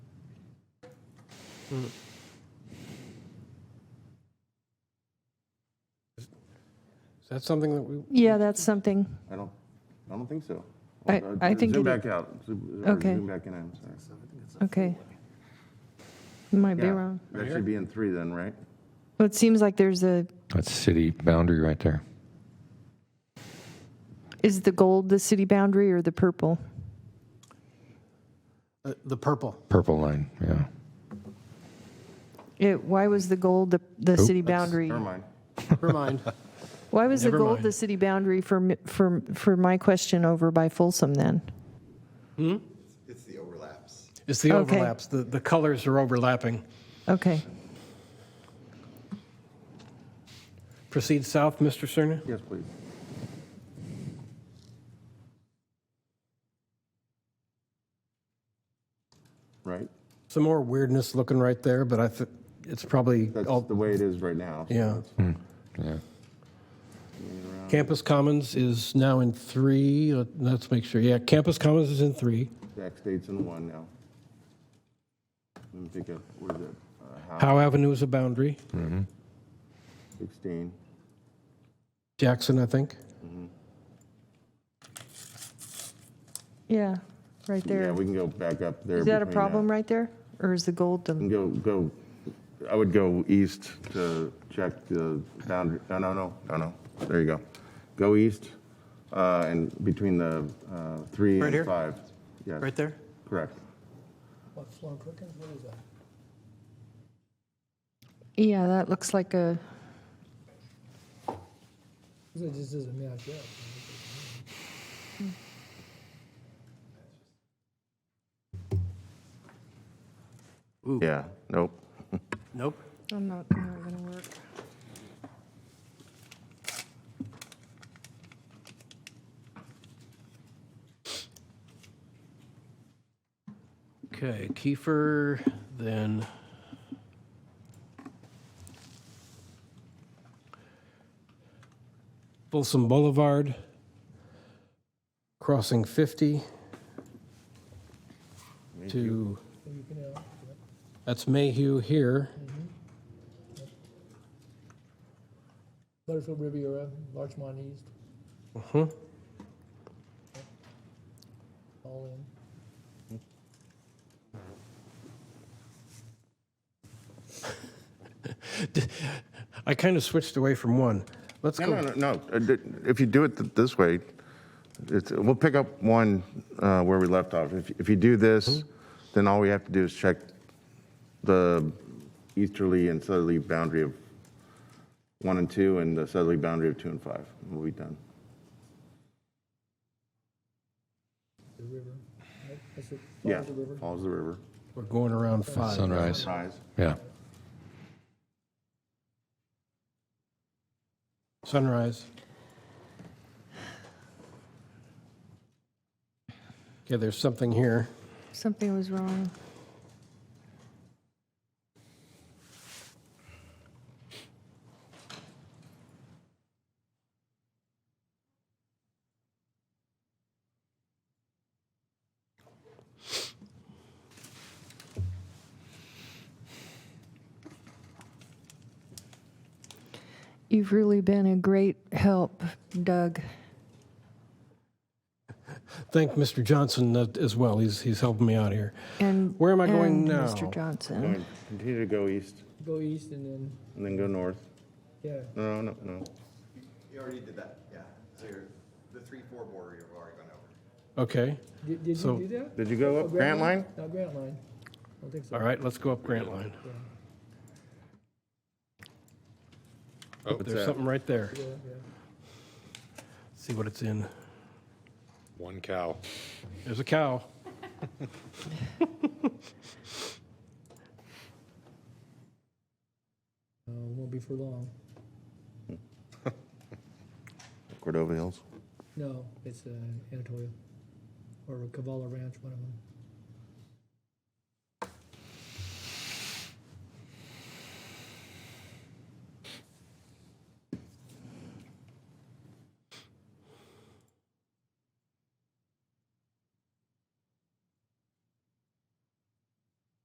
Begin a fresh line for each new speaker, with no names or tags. Is that something that we,
Yeah, that's something.
I don't, I don't think so.
I-
Uh,
I think
Zoom
it-
back out, Zoom or
Okay.
zoom back in, I'm sorry.
Okay. Might be
Yeah,
wrong.
That should be in three then, right?
Well, it seems like there's a,
That's city boundary right there.
is the gold the city boundary or the purple?
uh, the purple?
Purple line, yeah.
It, why was the gold the, the city boundary?
Never mind.
Never mind.
Why was the
Never
gold
mind.
the city boundary for, mi- for, for my question over by Folsom then?
It's the overlaps.
It's the
Okay.
overlaps, the, the colors are overlapping.
Okay.
Proceed south, Mr. Cerner?
Yes, please. Right?
Some more weirdness looking right there, but I, thi- it's probably
That's
all
the way it is right now. so
Oh. Yeah.
that's
Hmm.
fine.
Yeah.
Campus Commons is now in three. Let- Let's make sure. Yeah, Campus Commons is in three.
Zach State's in one now. Let me pick up, what is it? Uh, Howe,
Howe Avenue is a boundary.
Mm-hmm.
16.
Jackson, I think.
Yeah, right
Yeah,
there.
we can go back up there.
Is that a
between Mm.
problem right there? Or is the gold the?
And go, go, I would go east to check the boundary, no, no, no, no, no, there you go. Go east uh, and between the uh, three
Right here?
and five. Yeah,
Right there?
Correct.
Yeah, that looks like a,
It just doesn't match up.
Yeah, nope.
Nope.
I'm not, not gonna work.
Okay, Kiefer, then.
Folsom Boulevard, crossing 50 to, that's Mayhew here,
Butterfield Riviera, Larchmont East.
Mm-hmm.
All in.
I kind of switched away from one. Let's
No,
go.
no, no, no, Uh, th- if you do it th- this way, it's, we'll pick up one uh, where we left off. If, if you do this, then all we have to do is check the easterly and southerly boundary of one and two and the southerly boundary of two and five. and We'll be done.
the river. right? That's it,
Yeah,
follows the river.
follows the river.
We're going around five.
Sunrise,
Rise.
Uh, yeah.
Sunrise. Okay, there's something here.
Something was wrong. You've really been a great help, Doug.
Thank Mr. Johnson uh, as well. He's, he's helping me out here.
And
Where am I going
and
now?
Mr. Johnson.
And Continue to go east
Go east and then,
and then go north.
yeah.
No, no, no, no.
You already did that, yeah. So you're, the three, four border, you've already gone over.
Okay,
Did, did
So-
you do that?
Did you go
Oh,
up Grant Line?
No, Grant Line. I don't think so.
all right, let's go up Grant Line.
Oh,
There's something right there.
Yeah, yeah.
See what it's in.
One cow.
There's a cow.
Uh, won't be for long.
Cordova Hills.
No, it's, uh, Anatolia or Cavala Ranch, one of them.